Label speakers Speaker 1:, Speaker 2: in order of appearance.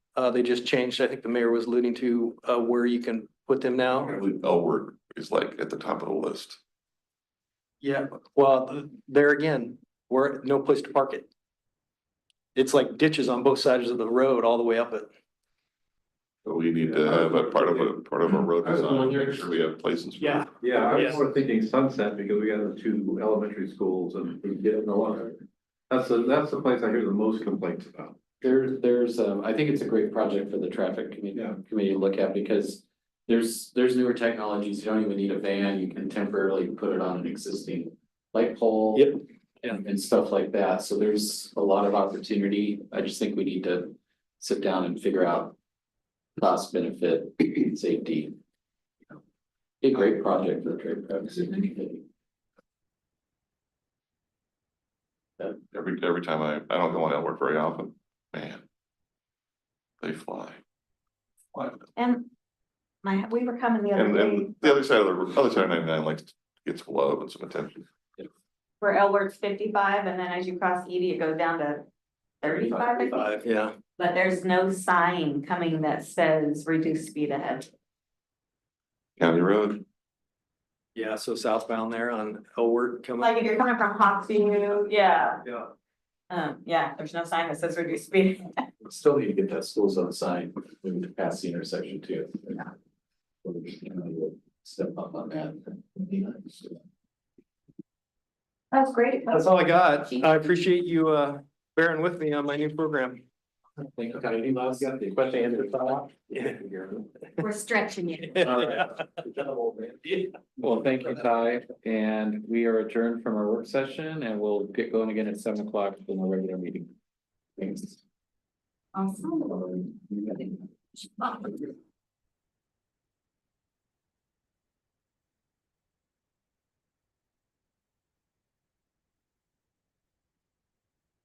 Speaker 1: Uh, they just changed, I think the mayor was alluding to, uh, where you can put them
Speaker 2: I
Speaker 1: now.
Speaker 2: believe L word is like at the top of the list.
Speaker 1: Yeah, well, th- there again, we're, no place to park it. It's like ditches on both sides of the road all the way up it.
Speaker 2: So we need to have a part of a, part of a road design, make sure we have places. for
Speaker 1: Yeah.
Speaker 3: Yeah, I was
Speaker 1: Yes.
Speaker 3: sort of thinking Sunset because we got the two elementary schools and we get in a lot. of- That's the, that's the place I hear the most complaints about.
Speaker 4: There, there's, um, I think it's a great project for the traffic committee,
Speaker 3: Yeah.
Speaker 4: committee to look at because. There's, there's newer technologies, you don't even need a van, you can temporarily put it on an existing light pole.
Speaker 1: Yep.
Speaker 4: And, and stuff like that, so there's a lot of opportunity, I just think we need to sit down and figure out. Cost benefit, safety. you know. Be a great project for the traffic committee.
Speaker 2: Every, every time I, I don't go on L word very often, man. They fly. Fly.
Speaker 5: And my, we were coming the other
Speaker 2: And
Speaker 5: day
Speaker 2: then the other side of the, other side of ninety-nine likes, gets love and some attention.
Speaker 5: where L works fifty-five and then as you cross Edie, it goes down to thirty-five, I think.
Speaker 1: Five, yeah.
Speaker 5: But there's no sign coming that says reduce speed ahead.
Speaker 2: County road,
Speaker 1: Yeah, so southbound there on Elwood coming.
Speaker 5: Like if you're coming from Hoxie, yeah,
Speaker 3: Yeah.
Speaker 5: um, yeah, there's no sign that says reduce speed.
Speaker 4: Still need to get that school zone sign moved past the intersection too. Step up on that.
Speaker 5: That's great.
Speaker 1: That's all I got. I appreciate you, uh, bearing with me on my new program.
Speaker 4: Thank you, Connie. Any last question, Andrew?
Speaker 5: We're stretching it.
Speaker 4: Well, thank you, Ty, and we are adjourned from our work session and we'll get going again at seven o'clock for the regular meeting. Thanks.
Speaker 5: Awesome.